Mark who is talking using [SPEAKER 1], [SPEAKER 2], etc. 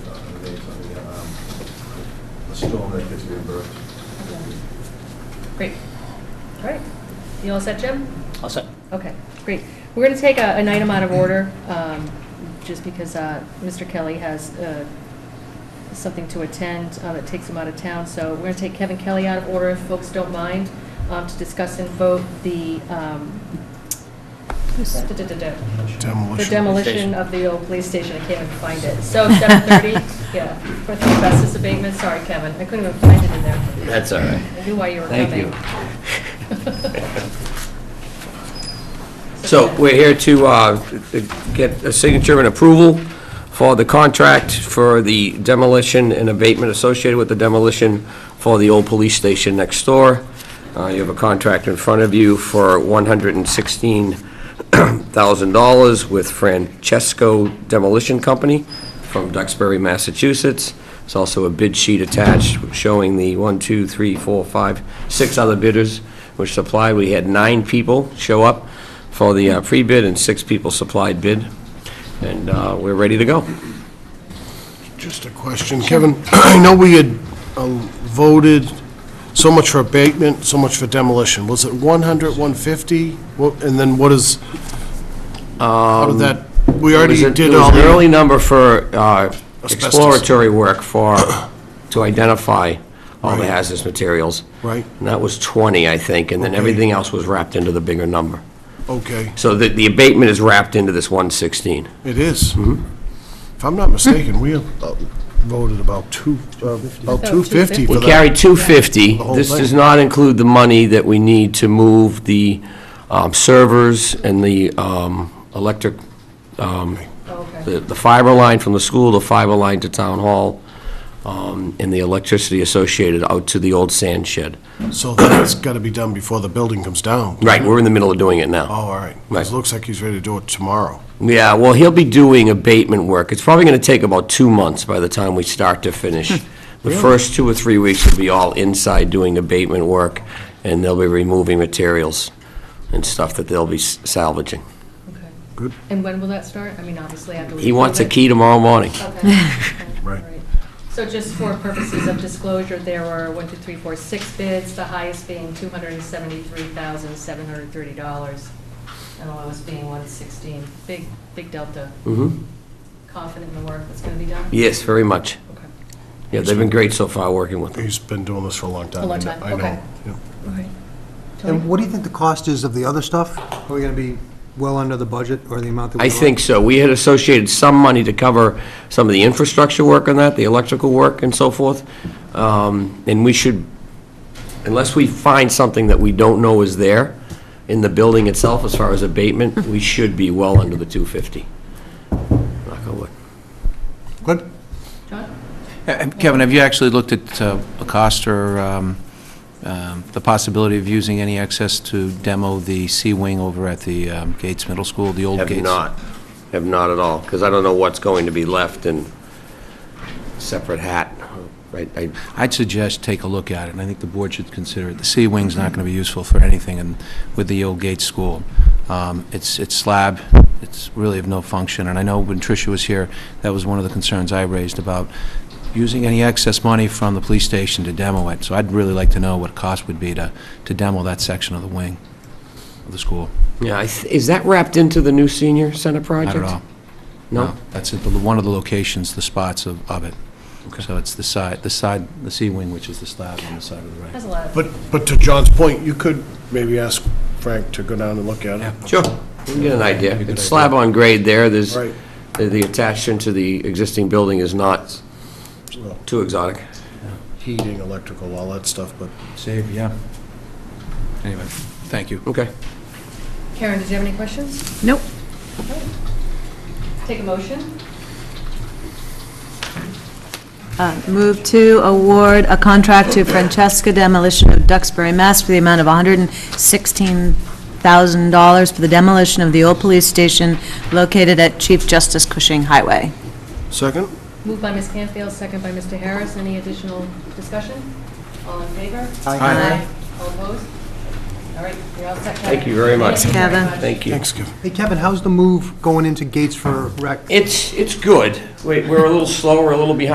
[SPEAKER 1] um, storm that gets reimbursed.
[SPEAKER 2] Great. All right. You all set, Jim?
[SPEAKER 3] I'll set.
[SPEAKER 2] Okay, great. We're going to take a- an item out of order, um, just because uh, Mr. Kelly has uh, something to attend uh, that takes him out of town. So we're going to take Kevin Kelly out of order, if folks don't mind, um, to discuss and vote the um, the demolition of the old police station. I can't even find it. So 7:30, yeah, for the asbestos abatement. Sorry, Kevin, I couldn't even find it in there.
[SPEAKER 3] That's all right.
[SPEAKER 2] I knew why you were
[SPEAKER 3] Thank
[SPEAKER 2] coming.
[SPEAKER 3] you. So we're here to uh, get a signature and approval for the contract for the demolition and abatement associated with the demolition for the old police station next door. Uh, You have a contract in front of you for $116,000 with Francesco Demolition Company from Duxbury, Massachusetts. There's also a bid sheet attached showing the one, two, three, four, five, six other bidders which supplied. We had nine people show up for the uh, pre-bid and six people supplied bid, and uh, we're ready to go.
[SPEAKER 4] Just a question, Kevin. I know we had um, voted so much for abatement, so much for demolition. Was it 100, 150? What- And then what is, how did that, we already
[SPEAKER 3] It Um, was a-
[SPEAKER 4] did
[SPEAKER 3] It
[SPEAKER 4] all
[SPEAKER 3] was an early
[SPEAKER 4] the...
[SPEAKER 3] number for uh,
[SPEAKER 4] Asbestos.
[SPEAKER 3] exploratory work for, to identify all the
[SPEAKER 4] Right.
[SPEAKER 3] hazardous materials.
[SPEAKER 4] Right.
[SPEAKER 3] And that was 20, I think, and then
[SPEAKER 4] Okay.
[SPEAKER 3] everything else was wrapped into the bigger number.
[SPEAKER 4] Okay,
[SPEAKER 3] So the the abatement is wrapped into this 116.
[SPEAKER 4] it is.
[SPEAKER 3] Mm-hmm.
[SPEAKER 4] If I'm not mistaken, we have uh, voted about two, uh, about 250 for
[SPEAKER 3] We
[SPEAKER 4] that.
[SPEAKER 3] carried 250.
[SPEAKER 4] The whole
[SPEAKER 3] This
[SPEAKER 4] thing.
[SPEAKER 3] does not include the money that we need to move the um, servers and the um, electric, um,
[SPEAKER 2] Oh, okay.
[SPEAKER 3] the the fiber line from the school, the fiber line to town hall, um, and the electricity associated out to the old sand shed.
[SPEAKER 4] So that's got to be done before the building comes down.
[SPEAKER 3] Right, we're in the middle of doing it
[SPEAKER 4] Oh,
[SPEAKER 3] now.
[SPEAKER 4] all right.
[SPEAKER 3] Right.
[SPEAKER 4] It looks like he's ready to do it tomorrow.
[SPEAKER 3] Yeah, well, he'll be doing abatement work. It's probably going to take about two months by the time we start to finish. The first two or three weeks will be all inside doing abatement work, and they'll be removing materials and stuff that they'll be s- salvaging.
[SPEAKER 2] Okay.
[SPEAKER 4] Good.
[SPEAKER 2] And when will that start? I mean, obviously after we.
[SPEAKER 3] He wants a
[SPEAKER 2] approve
[SPEAKER 3] key tomorrow morning.
[SPEAKER 2] it. Okay.
[SPEAKER 4] Right.
[SPEAKER 2] Alright. So just for purposes of disclosure, there were one, two, three, four, six bids, the highest being two hundred and seventy-three thousand, seven hundred and thirty dollars, and the lowest being one sixteen. Big, big delta.
[SPEAKER 3] Mhm.
[SPEAKER 2] Confident in the work that's gonna be done?
[SPEAKER 3] Yes, very much.
[SPEAKER 2] Okay.
[SPEAKER 3] Yeah, they've been great so far working with him.
[SPEAKER 4] He's been doing this for a long time.
[SPEAKER 2] A long
[SPEAKER 4] I kn-
[SPEAKER 2] time,
[SPEAKER 4] I know.
[SPEAKER 2] okay.
[SPEAKER 4] Yeah.
[SPEAKER 2] All right.
[SPEAKER 5] And what do you think the cost is of the other stuff? Are we going to be well under the budget or the amount that we...
[SPEAKER 3] I think so. We had associated some money to cover some of the infrastructure work on that, the electrical work and so forth. Um, And we should, unless we find something that we don't know is there in the building itself as far as abatement, we should be well under the 250. Knock on wood.
[SPEAKER 5] Good.
[SPEAKER 2] John?
[SPEAKER 6] Uh, Kevin, have you actually looked at uh, a cost or um, um, the possibility of using any excess to demo the C-wing over at the um, Gates Middle School, the old Gates?
[SPEAKER 3] Have not, have not at all, because I don't know what's going to be left in separate hat. Right, I-
[SPEAKER 6] I'd suggest take a look at it, and I think the board should consider it. The C-wing's not going to be useful for anything in- with the old Gates School. Um, It's it's slab, it's really of no function, and I know when Tricia was here, that was one of the concerns I raised about using any excess money from the police station to demo it. So I'd really like to know what it cost would be to to demo that section of the wing of the school.
[SPEAKER 3] Yeah, I th- is that wrapped into the new senior center
[SPEAKER 6] Not
[SPEAKER 3] project?
[SPEAKER 6] at all.
[SPEAKER 3] No?
[SPEAKER 6] That's it, the- one of the locations, the spots of of it. So it's the side, the side, the C-wing, which is the slab on the side of the right.
[SPEAKER 2] Has a lot of.
[SPEAKER 4] But, but to John's point, you could maybe ask Frank to go down and look at it.
[SPEAKER 3] Sure. We can get an idea. It's slab on grade there, there's,
[SPEAKER 4] Right.
[SPEAKER 3] the the attachment to the existing building is not too exotic.
[SPEAKER 4] Heating, electrical, all that stuff, but
[SPEAKER 6] Save, yeah. Anyway, thank you.
[SPEAKER 3] Okay.
[SPEAKER 2] Karen, did you have any questions?
[SPEAKER 7] Nope.
[SPEAKER 2] Take a motion?
[SPEAKER 7] Move to award a contract to Francesca Demolition of Duxbury, Mass. for the amount of $116,000 for the demolition of the old police station located at Chief Justice Cushing Highway.
[SPEAKER 4] second?
[SPEAKER 2] Moved by Ms. Canfield, second by Mr. Harris. Any additional discussion? All in favor?
[SPEAKER 5] Aye.
[SPEAKER 2] All opposed? All right, you're all set, Kevin.
[SPEAKER 3] Thank you very much.
[SPEAKER 2] Thank you very
[SPEAKER 7] Kevin.
[SPEAKER 2] much.
[SPEAKER 3] Thank you.
[SPEAKER 4] Thanks, Kevin.
[SPEAKER 5] Hey, Kevin, how's the move going into Gates for rec?
[SPEAKER 3] It's, it's good. We- We're a little slower, a little behind